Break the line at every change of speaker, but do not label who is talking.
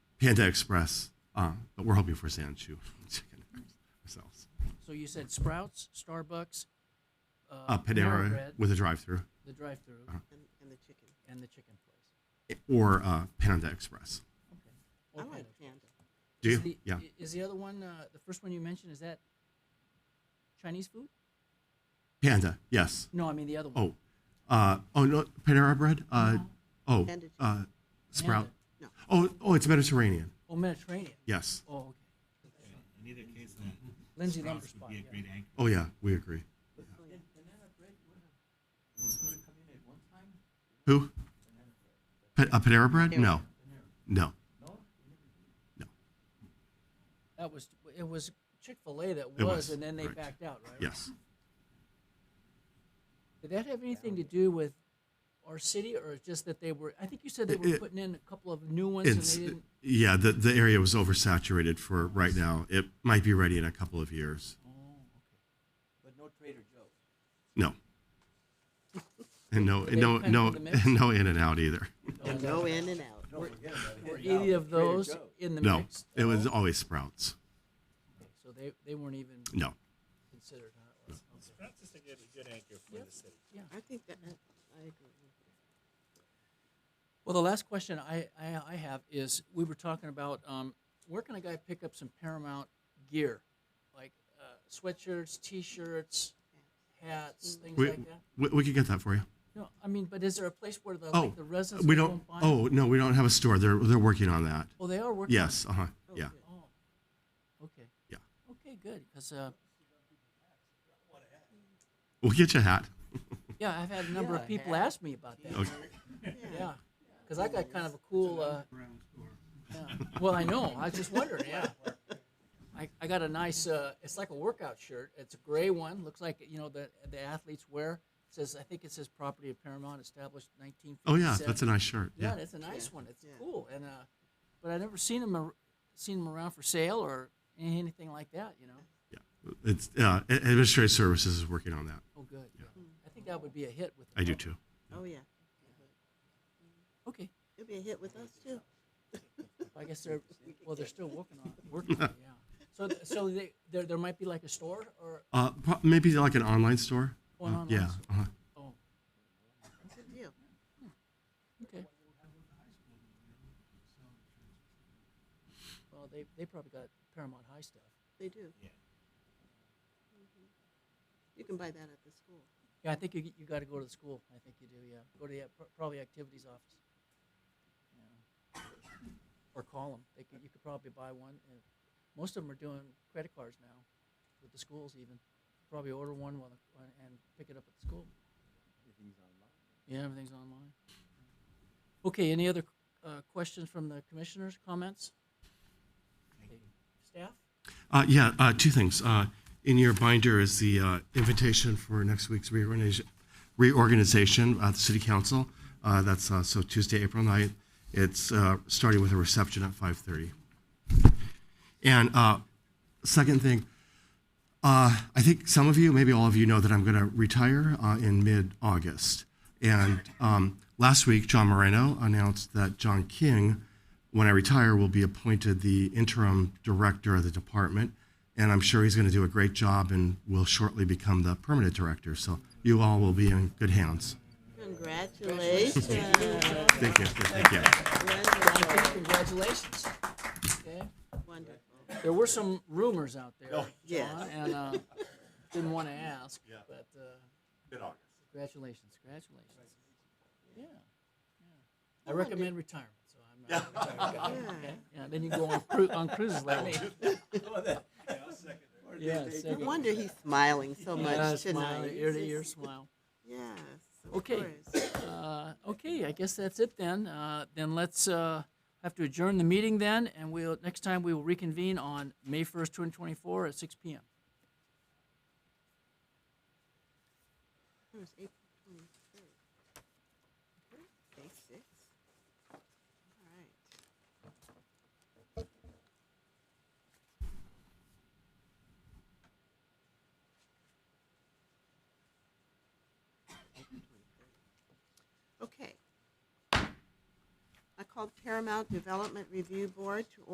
Panda Express, uh, but we're hoping for Sanchu chicken ourselves.
So you said Sprouts, Starbucks, uh,
Uh, Panera Uh-huh.
Bread,
with a drive-through,
the drive-through,
and, and the chicken.
and the chicken place.
or uh, Panda Express.
Or
I like
Panda.
Panda.
Do
Is
you?
the-
Yeah.
i- Is the other one, uh, the first one you mentioned, is that Chinese food?
Panda. Yes.
No, I mean the other one.
Oh. Uh, oh no. Panera bread. Uh, oh.
Panda chicken.
Uh, sprout.
No.
Oh. Oh, it's Mediterranean.
Oh, Mediterranean.
Yes.
Oh, okay.
In either case, then
Lindsay Lumber
Sprouts would
Spot.
be a
Yeah.
great anchor.
Oh yeah. We agree. Who? Pa- uh, Panera bread? No. No.
That was, it was Chick-fil-A that
It
was,
was,
and then they
right.
backed out, right?
Yes.
Did that have anything to do with our city, or just that they were, I think you said they
It-
were
it-
putting in a couple of new ones and
It's
they didn't?
yeah. The the area was oversaturated for right now. It might be ready in a couple of years.
But no Trader Joe's.
No. And no,
Did
and
they
no,
depend
no,
on the mix?
and no in and out either.
Oh, is that-
Go in and out.
Don't forget about it.
Were
Now,
any of
Trader
those
Joe's.
in the
No,
mix?
it was always Sprouts.
So they, they weren't even
No.
considered, huh?
Sprouts is a good, a good anchor for the city.
I think that, I agree. with you.
Well, the last question I, I, I have is we were talking about um, where can a guy pick up some Paramount gear, like uh, sweatshirts, T-shirts, hats, things
Mm. We,
like that.
we, we could get that for you.
No, I mean, but is there a place where the
Oh,
like the residents
we
go
don't,
and buy?
oh, no, we don't have a store. They're, they're working on that.
oh, they are working. on
Yes, uh-huh, yeah.
good.
it. Oh, okay.
Yeah.
Okay, good. Because uh,
We'll get you a hat.
yeah, I've had a number of
Yeah,
people
hat.
ask me about that.
Okay.
Yeah, because I got kind of a cool. Uh, yeah. Well, I know. I was just wondering. Yeah. I, I got a nice. Uh, it's like a workout shirt. It's a gray one. Looks like you know the the athletes wear. It says I think it says property of Paramount established 1957.
Oh, yeah, that's a nice shirt,
Yeah,
yeah.
that's a nice
Yeah.
one. It's
Yeah.
cool. And uh, but I never seen them ar- seen them around for sale or anything like that. You know.
It's, uh, a- Administrative Services is working on that.
Oh, good. I think that would be a hit with. the
I do
public.
too.
Oh, yeah.
Okay.
It'd be a hit with us too.
I guess they're, well, they're still working on, working on it, yeah. So, th- so they, there, there might be like a store or,
Uh, pro- maybe like an online store?
Oh, an
Uh,
online
Yeah,
store.
uh-huh.
oh,
It's a deal.
okay. Well, they, they probably got Paramount High stuff.
They do.
Yeah.
Mhm. You can buy that at the school.
Yeah, I think you, you gotta go to the school. I think you do, yeah. Go to the, ac- probably activities office. Yeah. Or call them. They could, you could probably buy one. and Most of them are doing credit cards now with the schools even. Probably order one while, the- and pick it up at the school. Yeah, everything's online. Okay, any other uh, questions from the commissioners, comments? Okay, Staff?
Uh, yeah, uh, two things. Uh, in your binder is the uh, invitation for next week's reorganization, reorganization at the City Council. Uh, that's uh, so Tuesday, April 9th. It's uh, starting with a reception at 5:30. And uh, second thing, uh, I think some of you, maybe all of you, know that I'm going to retire uh, in mid August. And um, last week, John Moreno announced that John King, when I retire, will be appointed the interim director of the department. And I'm sure he's going to do a great job and will shortly become the permanent director. So you all will be in good hands.
Mm-hmm.
Congratulations.
Thank you. Thank you.
Okay,
Wonderful.
Congratulations. Okay.
Wonderful.
There were some rumors out there,
Yes.
John, and uh, didn't want to ask, but uh, congratulations, congratulations. Yeah, yeah. I recommend retirement, so I'm not a retired guy.
Yeah.
Okay? Yeah, then you go on, cru- on cruises like me.
Oh,
Yeah,
No
second.
wonder he's smiling so
Yeah,
much
smile,
tonight.
ear to ear smile.
Yes. of
Okay.
course.
Uh, okay, I guess that's it then. Uh, then let's uh, have to adjourn the meeting then, and we'll next time we will reconvene on May 1st, 2024 at 6 p.m.
It was April twenty-third. Day six. All right. April 23rd. Okay. I call called Paramount Development Review Board to